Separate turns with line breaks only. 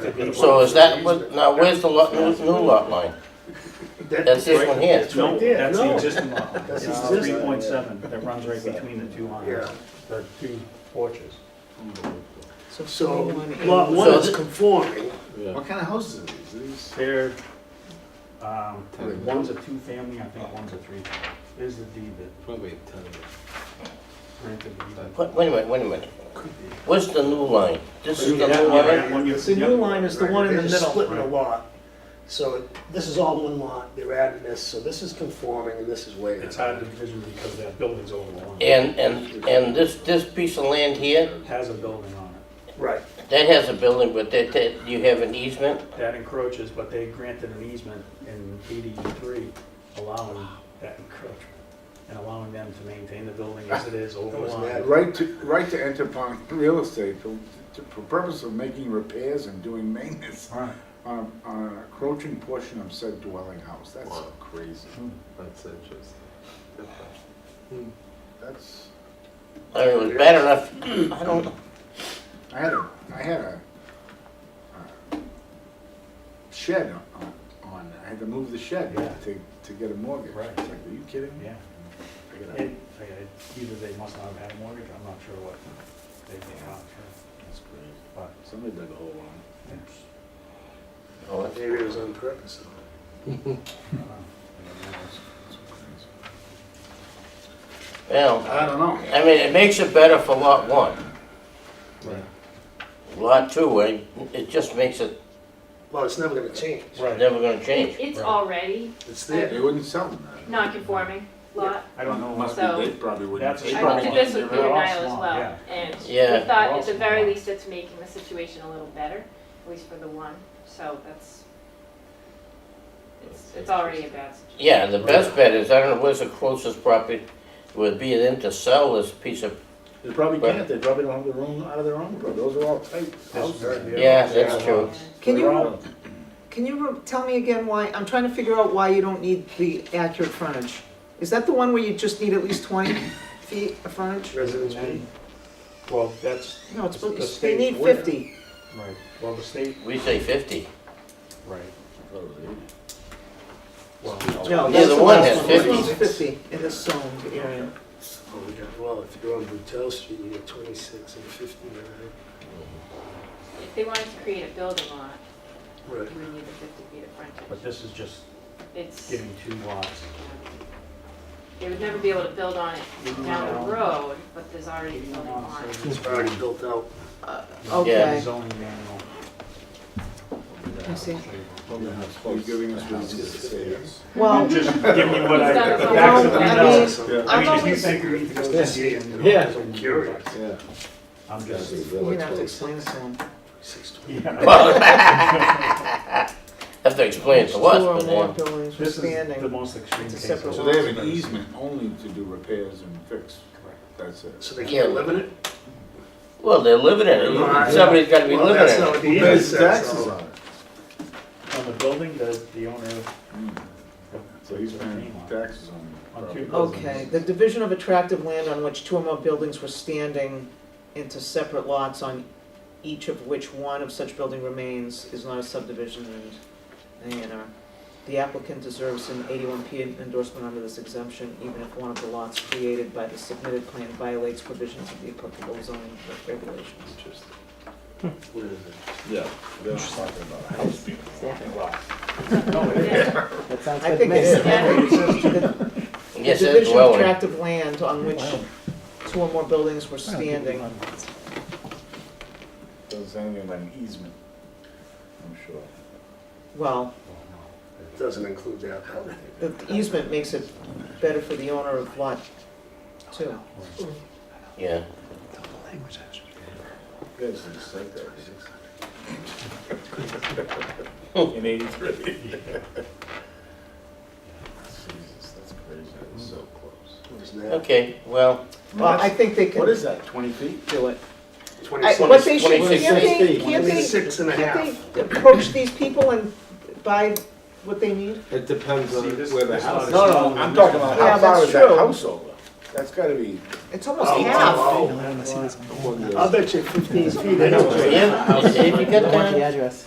gonna
So
work
is
for
that,
the
what-
easement.
now where's the lot, new, new lot line? That's this one here.
That's
No,
right there,
that's the
no.
existing lot line.
That's
It's
existing.
three point seven that runs right between the two lines.
Yeah,
the two porches.
so lot one
So
is
th-
conforming,
What kind of houses are these? Are these?
They're, um, one's a two-family, I think one's a three. There's the deed that
Probably a ton of them.
granted the deed.
Wait wait a minute, wait a minute. Where's the new line? This is the
Yeah,
new
yeah,
line?
yeah. one you-
It's a
yep.
new line, it's the one in the
Right,
middle.
they're just
splitting a
right.
lot. So this is all one lot, they're adding this, so this is conforming and this is way.
It's hard to envision because that building's over the line.
And, and, and this, this piece of land here,
Has a building on it.
Right,
that has a building, but that, that, you have an easement?
That encroaches, but they granted an easement in eighty-three allowing that encroachment and allowing them to maintain the building as it is over
That
the
was
line.
mad.
Right to, right to enter upon real estate for, to- for purpose of making repairs and doing maintenance
Right.
on, on an encroaching portion of said dwelling house. That's Hmm, so crazy. That's interesting. That's,
I mean, it was bad enough, I don't,
I had a, I had a uh, shed on, on, I had to move the shed
Yeah.
to, to get a mortgage.
Right.
It's like, are you kidding me?
Yeah.
I gotta-
It, I- I- either they must not have had a mortgage, I'm not sure what they did, I'm not sure,
That's crazy.
but.
Somebody dug a hole on
oh, it's-
maybe it was on purpose.
I don't know. I don't know.
well,
I don't know.
I mean, it makes it better for lot one.
Right.
Lot two, eh, it just makes it,
Well, it's never gonna change,
Right.
never gonna
It-
change.
It's
Right.
already
it's there.
They wouldn't sell them that.
non-conforming lot.
I don't know.
Must
what-
be,
So-
they probably wouldn't.
That's
they
a
I
probably
looked
problem.
wouldn't
at this with
They're all
Peter Nile as
small,
well,
yeah.
and
Yeah.
we
They're
thought
all
at the
small.
very least it's making the situation a little better, at least for the one, so that's, it's, it's already a bad situation.
Yeah, the best bet is, I don't know, where's the closest property would be then to sell this piece of,
They probably can't, they probably don't have the room out of their own, but those are all tight houses.
yeah, that's true.
Can
They're
you,
all-
can you re- tell me again why, I'm trying to figure out why you don't need the accurate frontage. Is that the one where you just need at least 20 feet of frontage?
Residents B.
Well, that's,
No, it's,
The
supposed-
state
you need
would.
50.
right, well, the state,
We say fifty.
right, well,
No,
Yeah,
that's
the
the
one
last
has
one. This one's
50.
50 in this zone area.
Oh, we got, well, if you go on Boutel Street, you get twenty-six and fifty-nine.
If they wanted to create a building lot,
Right.
you would need the fifty feet of
but
frontage.
this is just
It's,
giving two lots.
they would never be able to build on it down the road, but there's already a building on it.
It's already built out.
Okay.
Zoning manual.
I see.
You're giving us reasons to say yes.
Well,
Just give me what I,
It's not
the
a
facts that
problem.
we
I
know.
mean-
I mean,
I'm
if you
always-
think we need to go to CA and.
Yeah.
I'm
Curious.
Yeah.
I'm just,
you're gonna have to explain this to him.
Six twenty.
yeah.
Well, Have to explain it to us,
Two or
but uh,
more
then,
buildings
This is the
expanding.
most extreme
It's a
case.
separate
So they have an easement only to do repairs and fix,
Correct.
that's it.
So they can't live in it?
well, they're living in it, somebody's gotta be
Well, that's
living in
not
it.
what the
Who
easement
pays
says,
taxes
so-
on it?
On the building, the, the owner of.
Mm. So he's paying
Name on it.
taxes on the
On
property.
two
Okay, the division of attractive land on which two or more buildings were standing into separate lots on each of which one of such building remains is not a subdivision and A and R. The applicant deserves an eighty-one P endorsement under this exemption, even if one of the lots created by the submitted plan violates provisions of the applicable zoning regulations.
What is it?
Yeah. They're not talking about a house.
I think it's, the the
Yes, it's
division of
dwelling.
attractive land on which two or more buildings were standing.
Doesn't say anything about an easement, I'm sure.
Well,
It Doesn't include that building.
The easement makes it better for the owner of lot two.
Yeah,
You guys didn't say that. In eighty-three. Jesus, that's crazy, that was so close.
What is that?
okay, well,
Well, I think they
What
can
is that, twenty feet?
do it. I- What
Twenty-six.
they should, can't
26
they,
feet.
can't they,
26 and a half.
can't they approach these people and buy what they need?
It depends
See, this-
where the
this
house
lot
is.
is-
No, no, I'm talking about
Yeah,
how far
that's
is that
true.
house over? That's gotta be.
It's almost
Oh,
half.
oh, oh.
Well,
I'll
yes.
bet you fifteen feet.
yeah, if you got that.